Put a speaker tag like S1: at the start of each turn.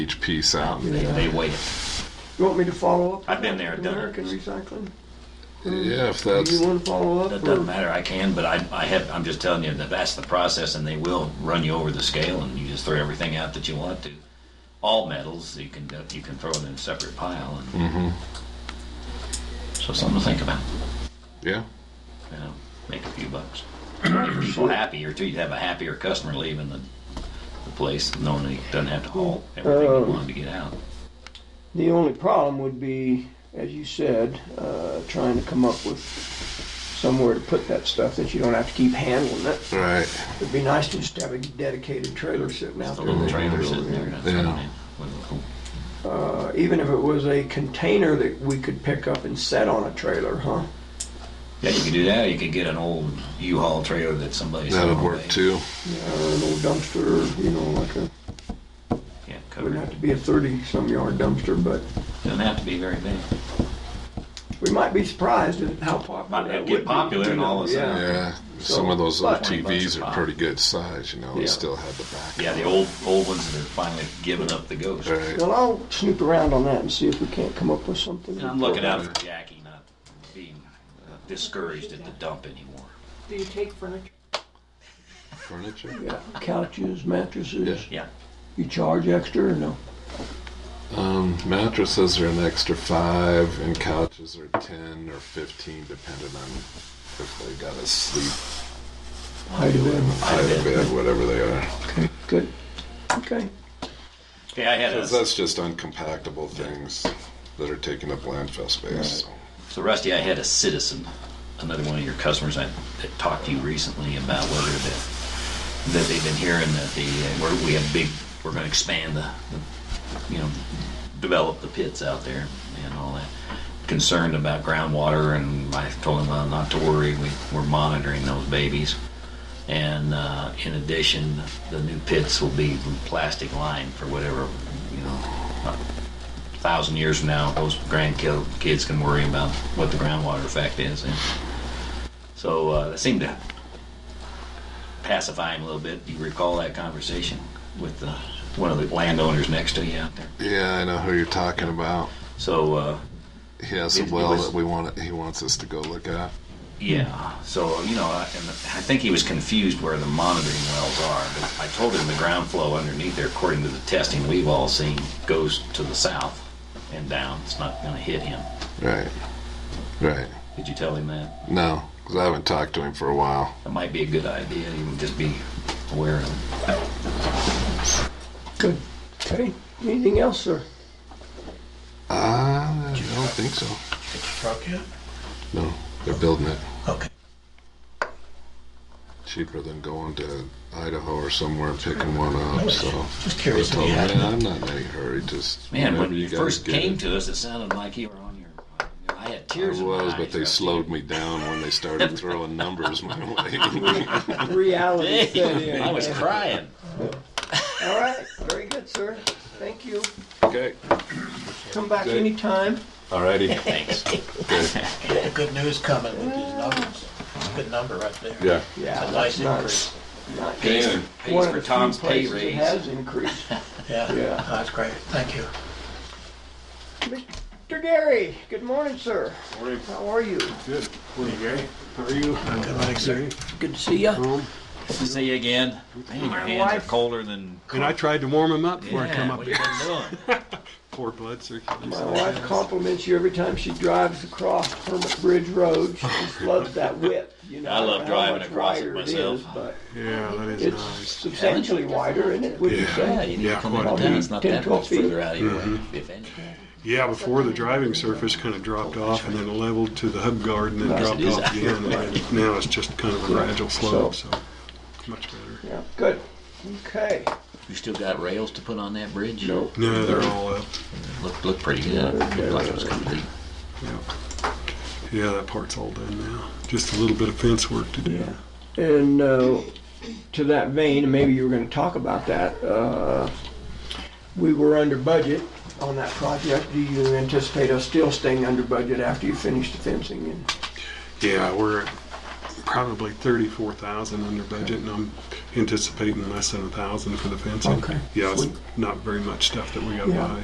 S1: each piece out.
S2: They, they wait.
S3: You want me to follow up?
S2: I've been there, done it.
S3: American Recycling?
S1: Yeah, if
S3: Do
S1: that's
S3: you want to follow up?
S2: That
S3: or-
S2: doesn't matter. I can, but I, I have. I'm just telling you that that's the process, and they will run you over the scale, and you just throw everything out that you want to. All metals you can you can throw them in a separate pile, and so something to think about.
S1: yeah.
S2: You know, make a few bucks. You're so happier too. You'd have a happier customer leaving the the place, knowing he doesn't have to haul everything
S3: Um,
S2: he wanted to get out.
S3: The only problem would be, as you said, uh, trying to come up with somewhere to put that stuff that you don't have to keep handling it.
S1: Right.
S3: It'd be nice to just have a dedicated trailer sitting out
S2: The
S3: there.
S2: little
S3: that you
S2: trailer
S3: can go
S2: sitting
S3: in.
S2: there. That's
S1: Yeah.
S2: right. Well,
S3: Uh, even if it was a container that we could pick up and set on a trailer, huh? Uh,
S2: Yeah, you could do that. or You could get an old U-Haul trailer that somebody's
S1: That would work too.
S3: Yeah, or an old dumpster, or, you know, like a,
S2: Yeah, covered.
S3: wouldn't have to be a 30-some yard dumpster, but
S2: Doesn't have to be very big.
S3: we might be surprised at how popular
S2: Might
S3: that would
S2: get
S3: be.
S2: popular
S3: you
S2: and
S3: know,
S2: all of a sudden-
S3: yeah.
S1: Yeah.
S3: So,
S1: Some of those old
S3: but-
S1: TVs are
S2: pop.
S1: pretty good size, you know. They
S3: Yeah.
S1: still have the back.
S2: Yeah, the old old ones that are finally giving up the ghost.
S1: Right.
S3: Well, I'll snoop around on that and see if we can't come up with something.
S2: And I'm looking out for Jackie not being uh, discouraged at the dump anymore.
S4: Do you take furniture?
S1: Furniture.
S3: Yeah, couches, mattresses.
S2: Yeah.
S3: You charge extra or no?
S1: Um, mattresses are an extra five, and couches are ten or fifteen, depending on if they got a sleep
S3: Height of bed.
S1: out of bed, whatever they are.
S3: Okay, good. Okay.
S2: Okay, I had a,
S1: 'Cause that's just uncompactable things that are taking up landfill space.
S2: so Rusty. I had a citizen, another one of your customers, I that talked to you recently about whether that that they've been hearing that the uh, we're, we have big we're going to expand the, the you know develop the pits out there and all that concerned about groundwater and I told him uh, not to worry we, we're monitoring those babies and uh, in addition the new pits will be plastic lined for whatever you know a thousand years from now those grandkids can worry about what the groundwater effect is and so uh, that seemed to pacify him a little bit. Do you recall that conversation with the, one of the landowners next to you out there?
S1: Yeah, I know who you're talking about.
S2: So, uh,
S1: He has
S2: It-
S1: a
S2: it
S1: well
S2: was-
S1: that we want. He wants us to go look at.
S2: yeah. So, you know, I, and I think he was confused where the monitoring wells are. But I told him the ground flow underneath there, according to the testing we've all seen, goes to the south and down. It's not going to hit him.
S1: Right, right.
S2: Did you tell him that?
S1: No, because I haven't talked to him for a while.
S2: That might be a good idea. You can just be aware of it.
S3: Good. Okay. Anything else, sir?
S1: Uh, I don't think so.
S5: Get your truck yet?
S1: No, they're building it
S5: Okay.
S1: cheaper than going to Idaho or somewhere and picking one
S5: I
S1: up.
S5: was
S1: So.
S5: just
S1: I
S5: curious if
S1: told
S5: you had
S1: him,
S5: any.
S1: "Man, I'm not in any hurry. Just
S2: Man, when
S1: whenever
S2: you
S1: guys
S2: first
S1: get
S2: came
S1: it."
S2: to us, it sounded like you were on your. I had tears
S1: I
S2: in my
S1: was,
S2: eyes,
S1: but they
S2: Rusty.
S1: slowed me down when they started throwing numbers my way.
S3: Reality set in.
S2: I was crying.
S3: All right. Very good, sir. Thank you.
S1: okay,
S3: Come back
S1: Okay.
S3: anytime.
S1: alrighty.
S2: Thanks.
S1: Good.
S5: Yeah, good news coming with these numbers. It's a good number right there.
S1: Yeah.
S3: Yeah.
S5: It's a
S3: that's
S5: nice
S3: not-
S5: increase.
S3: not
S2: Pays,
S1: Yeah.
S2: pays
S3: one of
S2: for
S3: the few
S2: Tom's pay
S3: places it
S2: raise.
S3: Has increased.
S5: Yeah,
S3: Yeah.
S5: that's great. Thank you.
S3: Mr. Gary, good morning, sir. Morning. How are you?
S5: Good morning, sir.
S3: Good to see you.
S2: See you again. Man, your hands are
S3: wife-
S2: colder than.
S6: And I tried to warm him up before I come
S2: Yeah,
S6: up
S2: what you
S6: here.
S2: been doing?
S6: Poor blood
S3: My
S6: circulation.
S3: wife compliments you every time she drives across Hermit Bridge Road. She just loves that width. You know,
S2: I love
S3: how
S2: driving
S3: much
S2: across it
S3: wider is,
S2: myself.
S3: but
S6: Yeah, that is
S3: it's
S6: nice.
S3: substantially wider, isn't it? Would you
S2: Yeah,
S3: say?
S2: you need to
S6: Yeah,
S2: come
S6: quite
S2: into
S6: a
S2: town.
S6: bit.
S2: It's not
S3: 10,
S2: that
S3: 12
S2: much
S3: feet.
S2: further out of your way,
S1: Mm-hmm.
S2: if anything.
S6: Yeah, before the driving surface kind of dropped off and then leveled to the hub guard and then
S2: Nice,
S6: dropped
S2: it is
S6: off again. And now it's just kind of a gradual slope, so much better.
S3: Yeah. Good. Okay.
S2: You still got rails to put on that bridge?
S3: No.
S6: No, they're all up.
S2: Look, look pretty good. Looked like it was complete.
S6: Yeah. yeah, that part's all done now. Just a little bit of fence work to do.
S3: Yeah. And uh, to that vein, and maybe you were going to talk about that. Uh, we were under budget on that project. Do you anticipate us still staying under budget after you finish the fencing? And
S6: Yeah, we're probably thirty-four thousand under budget, and I'm anticipating less than a thousand for the fencing.
S3: Okay.
S6: Yeah, it's not very much stuff that we gotta
S3: Yeah.
S6: buy.